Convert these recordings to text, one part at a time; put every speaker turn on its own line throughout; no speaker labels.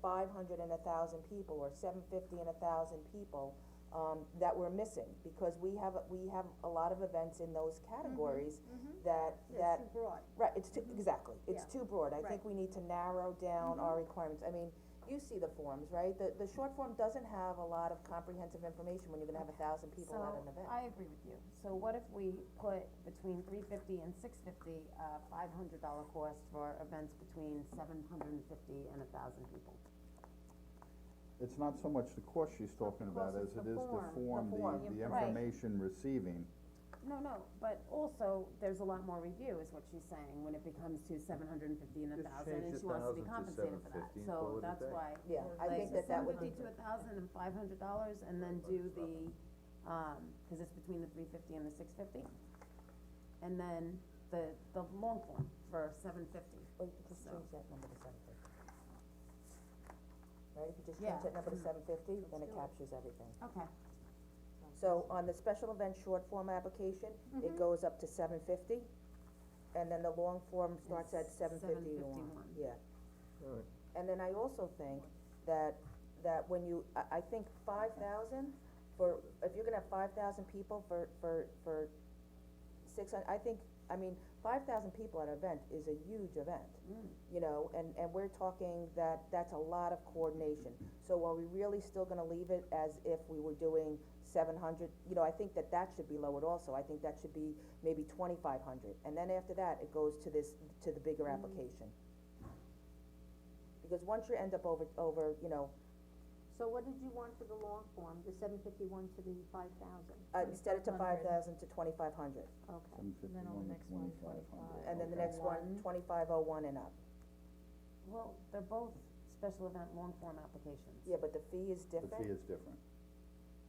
five hundred and a thousand people, or seven fifty and a thousand people, um, that we're missing, because we have, we have a lot of events in those
Mm-hmm.
categories
Mm-hmm.
that, that,
It's too broad.
right, it's too, exactly, it's
Yeah.
too broad, I think
Right.
we need to narrow down our
Mm-hmm.
requirements, I mean, you see the forms, right? The, the short form doesn't have a lot of comprehensive information when you're gonna have a thousand people at an event.
So, I agree with you, so what if we put between three fifty and six fifty, a five hundred dollar cost for events between seven hundred and fifty and a thousand people?
It's not so much the course she's talking about
course,
as
it's the
it is the
form. The
form,
form.
the, the
Right.
information receiving.
No, no, but also, there's a lot more review, is what she's saying, when it becomes to seven hundred and fifty and a
Just
thousand,
change
and
the
she wants to be
1,000 to
compensated for that,
750 and call
so
it a
that's
day.
why.
Yeah, I
like,
think that that would,
Seven fifty to a thousand and five hundred dollars, and then do the, um, cause it's between the three fifty and the six fifty. And then the, the long form for seven fifty.
wait, oh, just change that number to seven fifty. Right, if you just
Yeah. Mm-hmm.
change that number to seven fifty, then it
do it.
captures everything.
Okay.
So on the special event short form application, it goes up to seven fifty, and then the long form starts at
It's
seven fifty to one,
751.
yeah.
Alright.
And then I also think that, that when you, I, I think five thousand for, if you're gonna have five thousand people for, for, for six hun- I think, I mean, five thousand people at an event is a huge event. You know, and, and we're talking that, that's a lot of coordination, so are we really still gonna leave it as if we were doing seven hundred? You know, I think that that should be lowered also, I think that should be maybe twenty-five hundred, and then after that, it goes to this, to the bigger application. Because once you end up over, over, you know,
So what did you want for the long form, the seven fifty-one to the five thousand?
uh, instead of to five thousand to twenty-five hundred,
Okay,
Seven
then on the next one, 25.
and then the next one, twenty-five oh one and up.
Well, they're both special event long form applications.
Yeah, but the fee is
The fee
different,
is different.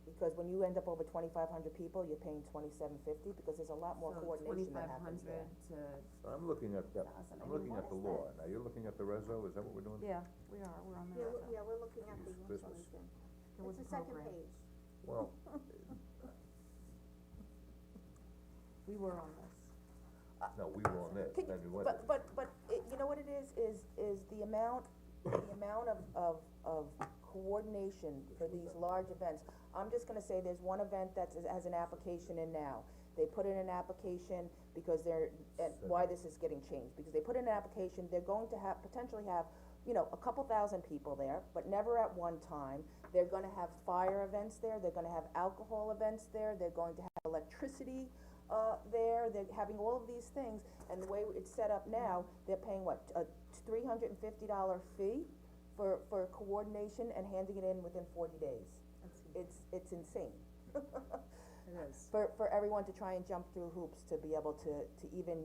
because when you end up over twenty-five hundred people, you're paying twenty-seven fifty, because there's a lot more coordination that happens there.
So twenty-five hundred
I'm looking at that,
Thousand. I
I'm
mean,
looking
what
at the
is
law, now you're looking at the reso, is that what we're doing?
Yeah, we are, we're on the
yeah,
right
we- yeah, we're looking at the
Use
ones
business.
again.
There was a
It's the second
program.
page,
Well,
We were on this.
no, we were on this,
Can
then we
you,
went,
but, but, but, it, you know what it is, is, is the amount, the amount of, of, of coordination for these large events. I'm just gonna say, there's one event that's, has an application in now, they put in an application because they're, and why this is getting changed, because they put in an application, they're going to have, potentially have, you know, a couple thousand people there, but never at one time. They're gonna have fire events there, they're gonna have alcohol events there, they're going to have electricity, uh, there, they're having all of these things, and the way it's set up now, they're paying what, a three hundred and fifty dollar fee for, for coordination and handing it in within forty days. It's, it's insane. It is. For, for everyone to try and jump through hoops to be able to, to even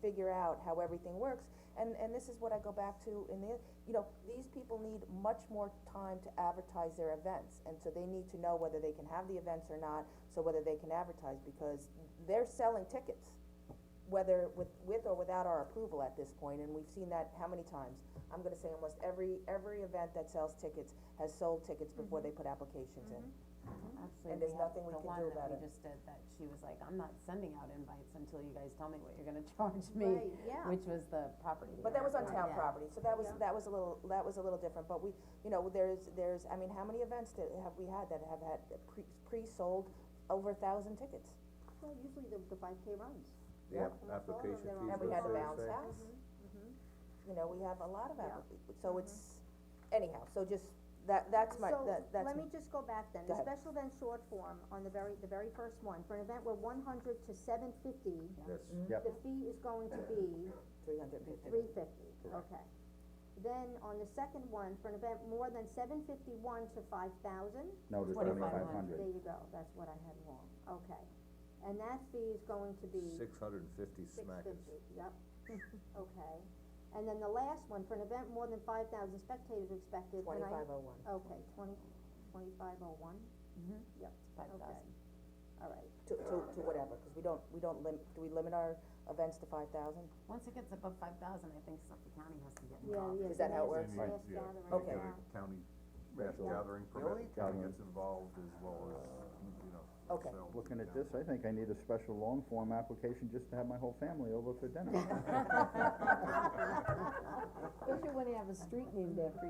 figure out how everything works. And, and this is what I go back to in the, you know, these people need much more time to advertise their events. And so they need to know whether they can have the events or not, so whether they can advertise, because they're selling tickets. Whether with, with or without our approval at this point, and we've seen that how many times? I'm gonna say almost every, every event that sells tickets has sold tickets before they put applications in.
Actually,
And
we
there's
have
nothing we
the
can
one
do
that
about
we
it.
just did, that she was like, I'm not sending out invites until you guys tell me what you're gonna charge me,
right, yeah,
which was the property.
But that was on town
Yeah.
property, so that was,
Yeah.
that was a little, that was a little different, but we, you know, there's, there's, I mean, how many events that have we had that have had pre, pre-sold over a thousand tickets?
well, usually the, the five K runs.
the app- application
Yeah.
fees
And we
were
had the
so
bounce
say.
house,
Mm-hmm,
you know, we have a lot of
Yeah. Mm-hmm.
applica- so it's, anyhow, so just, that, that's my, that, that's,
So, let me just go back then,
Go
the
ahead.
special event short form on the very, the very first one, for an event where one hundred to seven fifty,
Yes,
Yep.
the fee is going to be
three hundred and fifty.
Three fifty, okay. Then on the second one, for an event more than seven fifty-one to five thousand,
No, the
2500.
twenty-five hundred.
there you go, that's what I had wrong, okay. And that fee is going to be
six hundred and fifty
six
smackers.
fifty, yep, okay. And then the last one, for an event more than five thousand spectators expected, and I,
Twenty-five oh one.
okay, twenty, twenty-five oh one,
Mhm.
Mm-hmm.
yep,
Five
Okay.
thousand.
all right.
To, to, to whatever, cause we don't, we don't lim, do we limit our events to five thousand?
Once it gets above five thousand, I think Suffolk County has to get
Yeah,
involved.
yeah.
Is that how it
the
works?
last- last gathering,
Okay.
yeah.
County
mass Yeah.
gathering
permit kinda gets
involved as well as, you know.
Okay.
Looking at this, I think I need a special long form application just to have my whole family over for dinner.
Especially when you have a street named after